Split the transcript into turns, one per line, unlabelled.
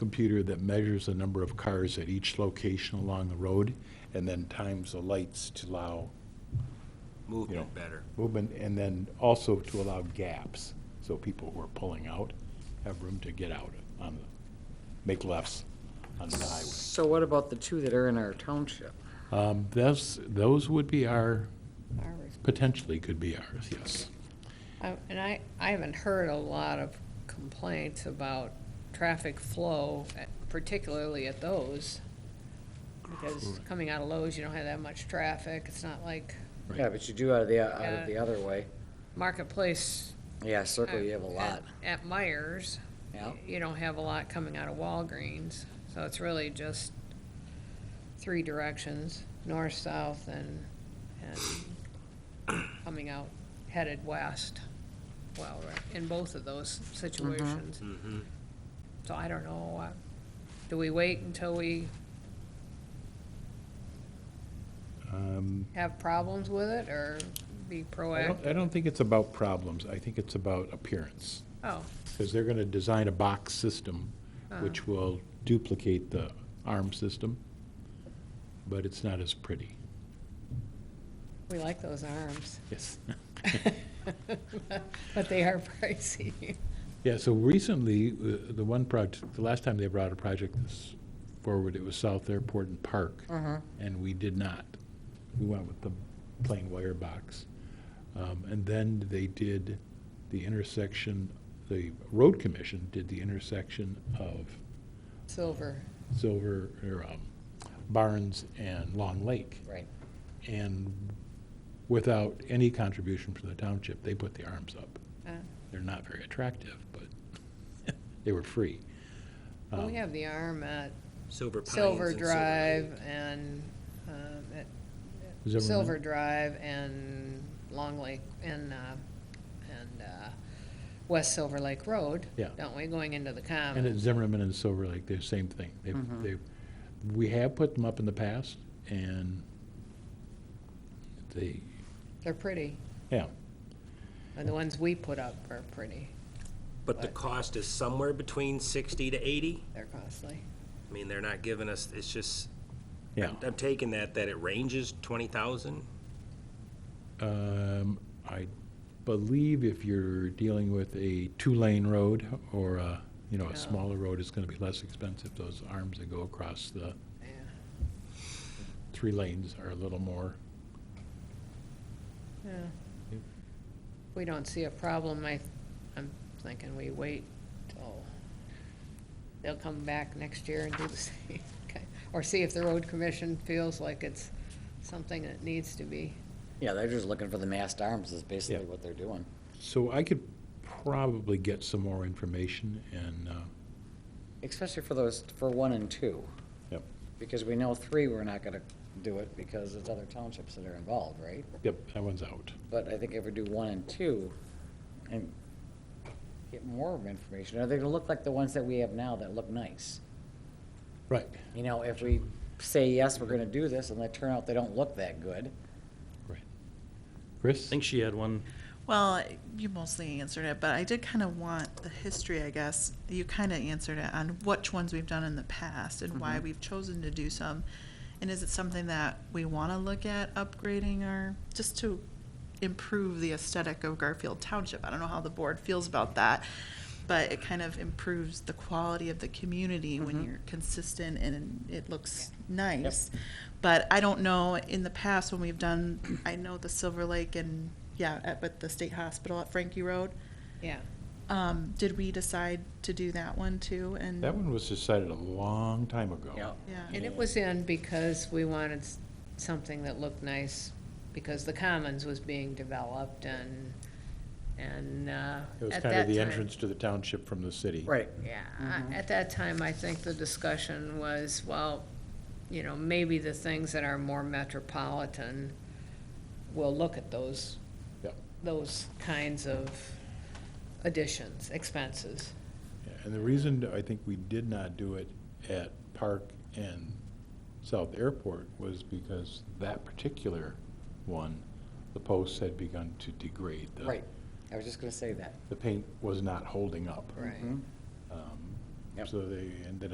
computer that measures the number of cars at each location along the road, and then times the lights to allow
movement better.
movement, and then also to allow gaps, so people who are pulling out have room to get out on the, make lefts on the highway.
So what about the two that are in our township?
Um, Those, those would be our,
Our res-
potentially could be ours, yes.
I- And I, I haven't heard a lot of complaints about traffic flow, at- particularly at those. Because coming out of Lowe's, you don't have that much traffic. It's not like
Right.
Yeah, but you do out of the, out
Yeah.
of the other way.
Marketplace.
Yeah, circle, you have a
at-
lot.
At Myers.
Yeah.
You don't have a lot coming out of Walgreens. So it's really just three directions, north, south, and, and coming out headed west. Well, right, in both of those situations. So I don't know, uh, do we wait until we
Um,
have problems with it or be
I don't, I
proactive?
don't think it's about problems, I think it's about appearance,
Oh,
because they're gonna design a box system, which will duplicate the arm system, but it's not as pretty.
we like those arms,
Yes.
but they are pricey.
Yeah, so recently, uh, the one project, the last time they brought a project this forward, it was South Airport and Park. And we did not. We went with the plain wire box. Um, And then they did the intersection, the road commission did the intersection of
Silver.
Silver, or um, Barnes and Long Lake.
Right.
And without any contribution from the township, they put the arms up.
Uh,
They're not very attractive, but they were free.
well, We
Um,
have the arm at
Silver Pines.
Silver
and
Drive
Lake.
and, um, at
Is everyone-
Silver Drive and Long Lake and, uh, and, uh, West Silver Lake Road.
Yeah.
Don't we, going into the
And at
common?
Zimmerman and Silver Lake, they're the same thing.
Mm-hmm.
They've, they've, we have put them up in the past, and they,
They're pretty.
yeah,
And the ones we put up are pretty.
But the cost is somewhere between sixty to eighty?
They're costly.
I mean, they're not giving us, it's just,
yeah.
I'm- I'm taking that, that it ranges twenty thousand?
Um, I believe if you're dealing with a two-lane road or a, you know, a smaller road, it's gonna be less expensive. Those arms that go across the
Yeah.
three lanes are a little more.
Yeah.
Yep.
We don't see a problem. I, I'm thinking we wait till they'll come back next year and do the same. Okay. Or see if the road commission feels like it's something that needs to be.
Yeah, they're just looking for the massed arms is basically
Yeah.
what they're doing.
So I could probably get some more information and, uh,
Especially for those, for one and two,
yep,
because we know three, we're not gonna do it because it's other townships that are involved, right?
yep, that one's out.
But I think if we do one and two, and get more information, are they gonna look like the ones that we have now that look nice?
Right,
You know, if we say, yes, we're gonna do this, and they turn out they don't look that good,
right. Chris?
I think she had one.
Well, you mostly answered it, but I did kind of want the history, I guess. You kind of answered it on which ones we've done in the past and why we've chosen to do some. And is it something that we want to look at upgrading or just to improve the aesthetic of Garfield Township? I don't know how the board feels about that, but it kind of improves the quality of the community when you're consistent and it looks nice. But I don't know, in the past when we've done, I know the Silver Lake and, yeah, at, with the state hospital at Frankie Road,
Yeah.
um, did we decide to do that one too? And
That one was decided a long time ago.
you know?
Yeah,
And it was in because we wanted s- something that looked nice, because the Commons was being developed and, and, uh,
It was
at
kind of
that
the
time-
entrance to the township from the city.
Right.
Yeah, I- at that time, I think the discussion was, well, you know, maybe the things that are more metropolitan will look at those,
Yep.
those kinds of additions, expenses.
Yeah, And the reason I think we did not do it at Park and South Airport was because that particular one, the posts had begun to degrade. The-
Right, I was just gonna say that.
The paint was not holding up.
Right.
Um,
Yep.
So they ended